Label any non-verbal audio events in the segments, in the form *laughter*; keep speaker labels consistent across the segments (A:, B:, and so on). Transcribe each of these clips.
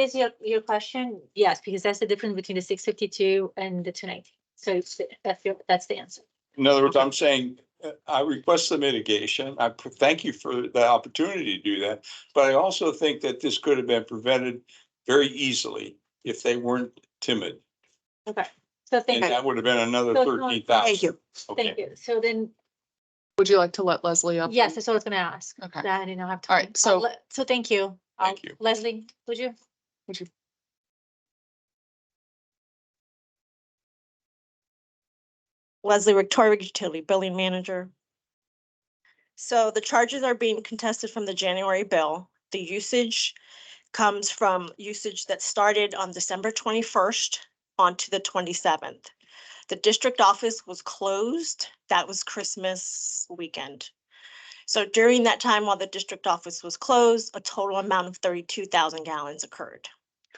A: is your, your question? Yes, because that's the difference between the six fifty-two and the two ninety. So it's- that's your, that's the answer.
B: In other words, I'm saying, uh, I request the mitigation. I pr- thank you for the opportunity to do that. But I also think that this could have been prevented very easily if they weren't timid.
A: So
B: And
A: thank you,
B: that would have been another
A: So it's not-
B: thirteen thousand.
C: Thank you.
A: thank you. So then,
D: Would you like to let Leslie up?
A: yes, that's what I was gonna ask.
D: Okay.
A: That I didn't have time.
D: All right,
A: Uh,
D: so-
A: le- So thank you. Uh,
B: Thank you.
A: Leslie, would you?
C: Leslie Victoria Utility Billing Manager. So the charges are being contested from the January bill. The usage comes from usage that started on December twenty-first onto the twenty-seventh. The district office was closed. That was Christmas weekend. So during that time, while the district office was closed, a total amount of thirty-two thousand gallons occurred,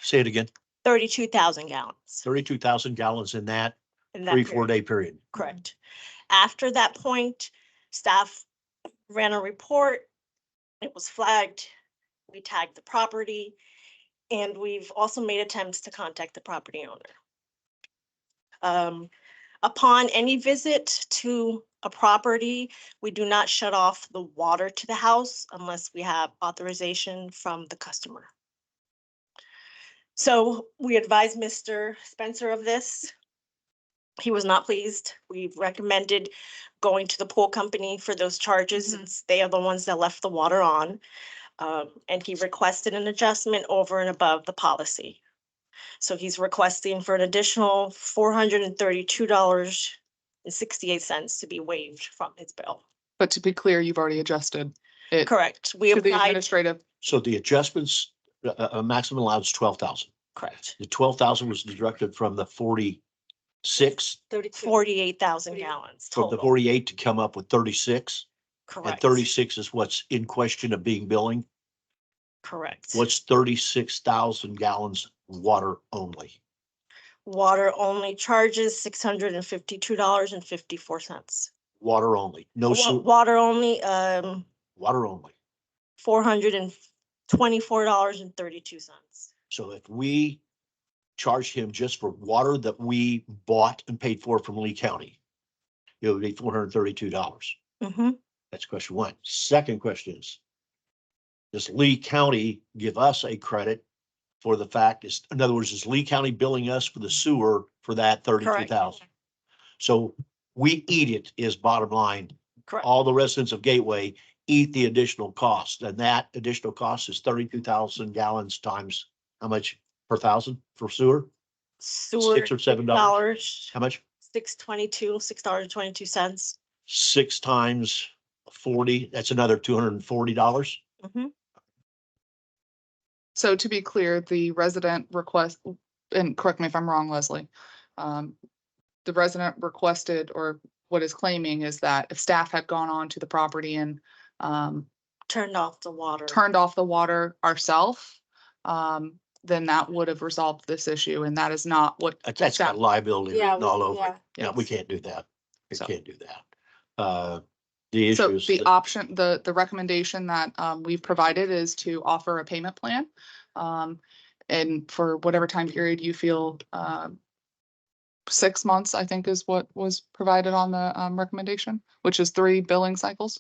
E: Say it again,
C: thirty-two thousand gallons.
E: thirty-two thousand gallons in that
C: in that
E: three,
C: period.
E: four day period.
C: Correct. After that point, staff ran a report. It was flagged. We tagged the property. And we've also made attempts to contact the property owner. Um, upon any visit to a property, we do not shut off the water to the house unless we have authorization from the customer. So we advised Mr. Spencer of this he was not pleased. We recommended going to the pool company for those charges
A: Mhm.
D: Mm-hmm.
C: since they are the ones that left the water on. Um, and he requested an adjustment over and above the policy. So he's requesting for an additional four hundred and thirty-two dollars and sixty-eight cents to be waived from his bill.
D: But to be clear, you've already adjusted it to
C: Correct. We
D: the
C: applied,
D: administrative.
E: So the adjustments, uh, uh, uh, maximum allowed is twelve thousand.
C: correct,
E: The twelve thousand was deducted from the forty-six,
A: Thirty-two.
C: forty-eight thousand
A: Forty-
C: gallons
E: from the
C: total.
E: forty-eight to come up with thirty-six. And
C: Correct.
E: thirty-six is what's in question of being billing.
C: Correct.
E: What's thirty-six thousand gallons water only?
C: Water only charges six hundred and fifty-two dollars and fifty-four cents.
E: Water only, no,
C: Wa-
E: sew-
C: Water only, um,
E: water only.
C: four hundred and twenty-four dollars and thirty-two cents.
E: So if we charge him just for water that we bought and paid for from Lee County, it would be four hundred thirty-two dollars.
C: Mm-hmm,
E: That's question one. Second question is, does Lee County give us a credit for the fact is, in other words, is Lee County billing us for the sewer for that thirty-two thousand? So we eat it is bottom line.
C: Correct,
E: All the residents of Gateway eat the additional cost and that additional cost is thirty-two thousand gallons times how much per thousand for sewer?
C: sewer
E: Six or seven dollars?
C: dollars,
E: How much?
C: six twenty-two, six dollars and twenty-two cents.
E: Six times forty, that's another two hundred and forty dollars.
C: Mm-hmm,
D: So to be clear, the resident request, and correct me if I'm wrong, Leslie. um, The resident requested or what is claiming is that if staff had gone on to the property and um,
C: Turned off the water.
D: turned off the water ourself, um, then that would have resolved this issue. And that is not what
E: Uh, That's got
D: Yeah.
E: liability
A: Yeah,
E: written
A: we-
E: all over. it.
A: yeah.
E: Yeah, we can't do that. We
D: So-
E: can't do that. Uh, the
D: So
E: issue is, uh,
D: the
E: that-
D: option, the, the recommendation that um, we've provided is to offer a payment plan. um, And for whatever time period you feel, um, six months, I think is what was provided on the um, recommendation, which is three billing cycles,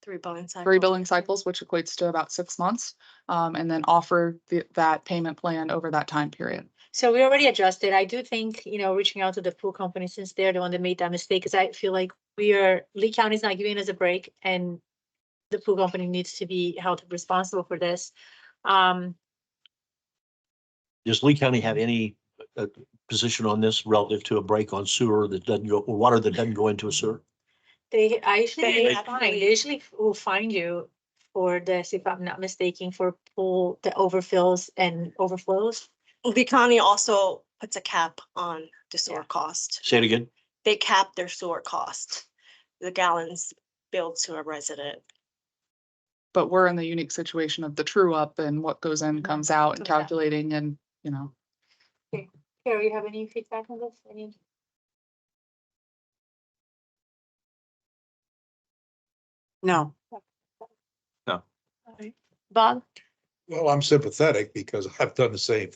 C: Three billing cycles.
D: three billing cycles, which equates to about six months. um, And then offer the- that payment plan over that time period.
A: So we already adjusted. I do think, you know, reaching out to the pool company since they're the one that made that mistake, because I feel like we are, Lee County's not giving us a break and the pool company needs to be held responsible for this. Um,
E: does Lee County have
D: Mm-hmm.
E: any uh, position on this relative to a break on sewer that doesn't go, or water that doesn't go into a sewer?
A: They, I usually,
C: They
A: will find- they
C: actually-
A: usually will find you for this, if I'm not mistaken, for pool that overfills and overflows.
C: The county also puts a cap on the sewer
A: Yeah.
C: cost.
E: Say it again.
C: They cap their sewer cost, the gallons billed to a resident.
D: But we're in the unique situation of the true up and what goes in
A: Mhm.
D: comes out and
A: Okay.
D: calculating and, you know.
A: Carrie, you have any feedback on this? Any?
F: No,
A: Bob?
B: Well, I'm sympathetic because *laughs* I've done the same